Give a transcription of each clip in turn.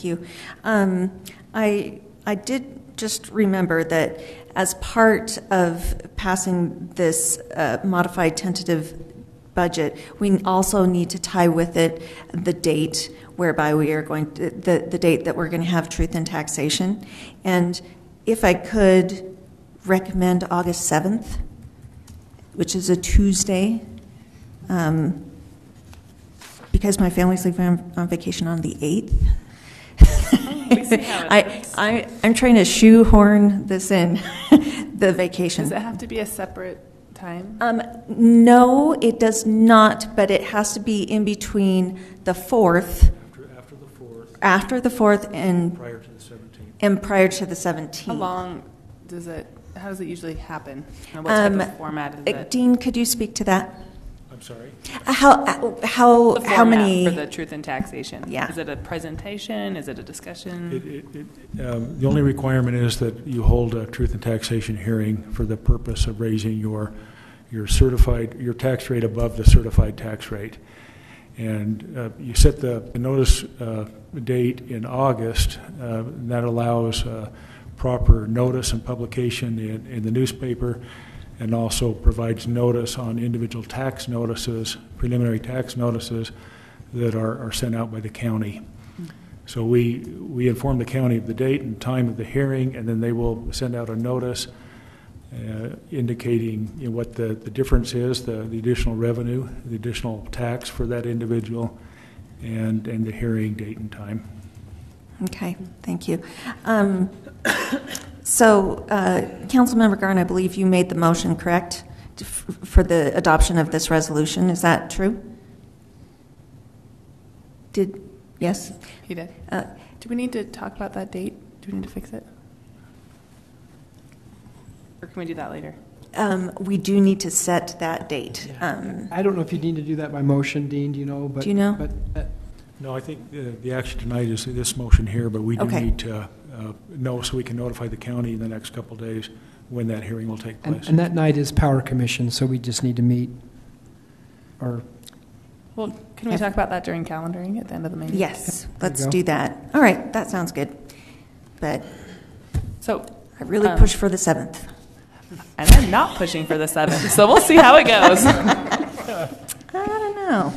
Thank you. Um, I, I did just remember that as part of passing this uh, modified tentative budget, we also need to tie with it the date whereby we are going, to- the, the date that we're going to have truth in taxation. And if I could recommend August 7th, which is a Tuesday, um, because my family's leaving on- on vacation on the 8th. we see how it I, works. I, I'm trying to shoehorn this in, the vacation. Does it have to be a separate time? Um, no, it does not, but it has to be in between the 4th, After, after the fourth, after the 4th and, prior to the seventeenth. and prior to the 17th. How long does it, how does it usually happen? And what type Um, of format is Uh, it? Dean, could you speak to that? I'm sorry. Uh, How, uh, how, The how format many? For the truth in taxation? Yeah. Is it a presentation? Is it a discussion? It, it, it, um, the only requirement is that you hold a truth and taxation hearing for the purpose of raising your, your certified, your tax rate above the certified tax rate. And uh, you set the the notice uh, date in August, uh, and that allows uh, proper notice and publication in, in the newspaper, and also provides notice on individual tax notices, preliminary tax notices that are, are sent out by the county. So we, we inform the county of the date and time of the hearing, and then they will send out a notice uh, indicating you know, what the, the difference is, the, the additional revenue, the additional tax for that individual, and, and the hearing date and time. Okay, thank you. Um, So, uh, Councilmember Garn, I believe you made the motion, correct, f- for the adoption of this resolution, is that true? Did, yes? He did. Uh, Do we need to talk about that date? Do we need to fix it? Or can we do that later? um, We do need to set that date. Yeah. Um, I don't know if you need to do that by motion, Dean, do you know? But- Do you know? But uh, No, I think the, the action tonight is this motion here, but we do Okay. need to uh, know so we can notify the county in the next couple of days when that hearing will take And place. and that night is Power Commission, so we just need to meet, or, Well, can we If- talk about that during calendaring at the end of the meeting? Yes, let's go. do that. All right, that sounds good, but So, I really Um, push for the 7th. and I'm not pushing for the seventh, so we'll see how it goes. I don't know.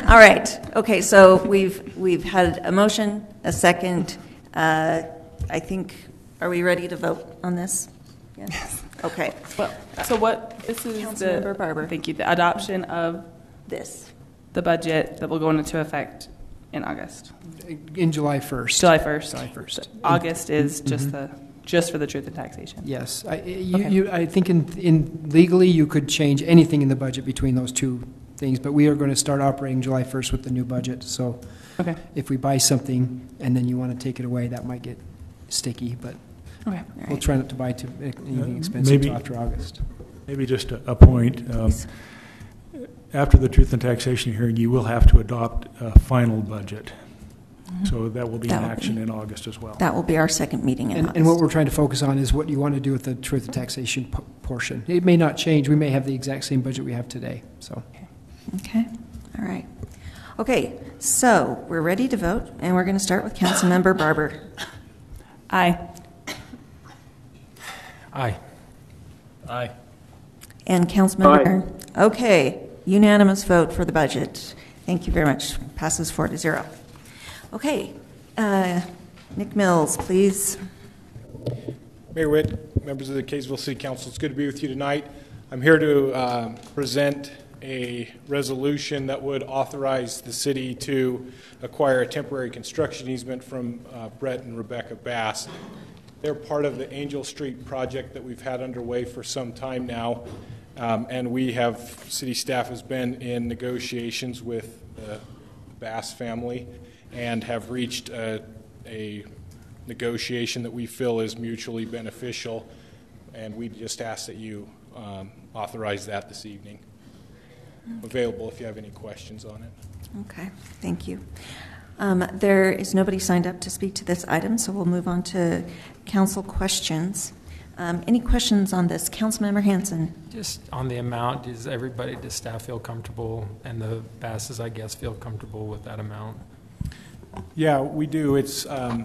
All right. Okay, so we've, we've had a motion, a second. Uh, I think, are we ready to vote on this? Yes. Okay, Well, so what, this is the. Councilmember Barber. Thank you. The adoption of this. the budget that will go into effect in August, in July 1st. July 1st. July 1st. August is just the, just for the truth in taxation. Yes. I- You, Okay. you, I think in, in legally, you could change anything in the budget between those two things, but we are going to start operating July 1st with the new budget, so Okay, if we buy something and then you want to take it away, that might get sticky, but okay. we'll try not to buy too, anything Uh, expensive maybe- till after August. Maybe just a a point. um, After the truth and taxation hearing, you will have to adopt a final budget. So that will be Mm-hmm. in That will action be- in August as well. That will be our second meeting in And, and what August. we're trying to focus on is what you want to do with the truth and taxation p- portion. It may not change. We may have the exact same budget we have today, so. Okay, all right. Okay, so we're ready to vote, and we're going to start with Councilmember Barber. Aye. Aye. Aye. And Councilmember Byrne? Okay, unanimous vote for the budget. Thank you very much. Passes four to zero. Okay, uh, Nick Mills, please. Mayor Witt, members of the Kaysville City Council, it's good to be with you tonight. I'm here to um, present a resolution that would authorize the city to acquire a temporary construction easement from uh, Brett and Rebecca Bass. They're part of the Angel Street project that we've had underway for some time now, um, and we have, city staff has been in negotiations with the Bass family and have reached uh, a negotiation that we feel is mutually beneficial, and we just ask that you um, authorize that this evening. Available if you have any questions on it. Okay, thank you. Um, There is nobody signed up to speak to this item, so we'll move on to council questions. Um, Any questions on this? Councilmember Hanson? Just on the amount, does everybody, does staff feel comfortable, and the Basses, I guess, feel comfortable with that amount? Yeah, we do. It's, um,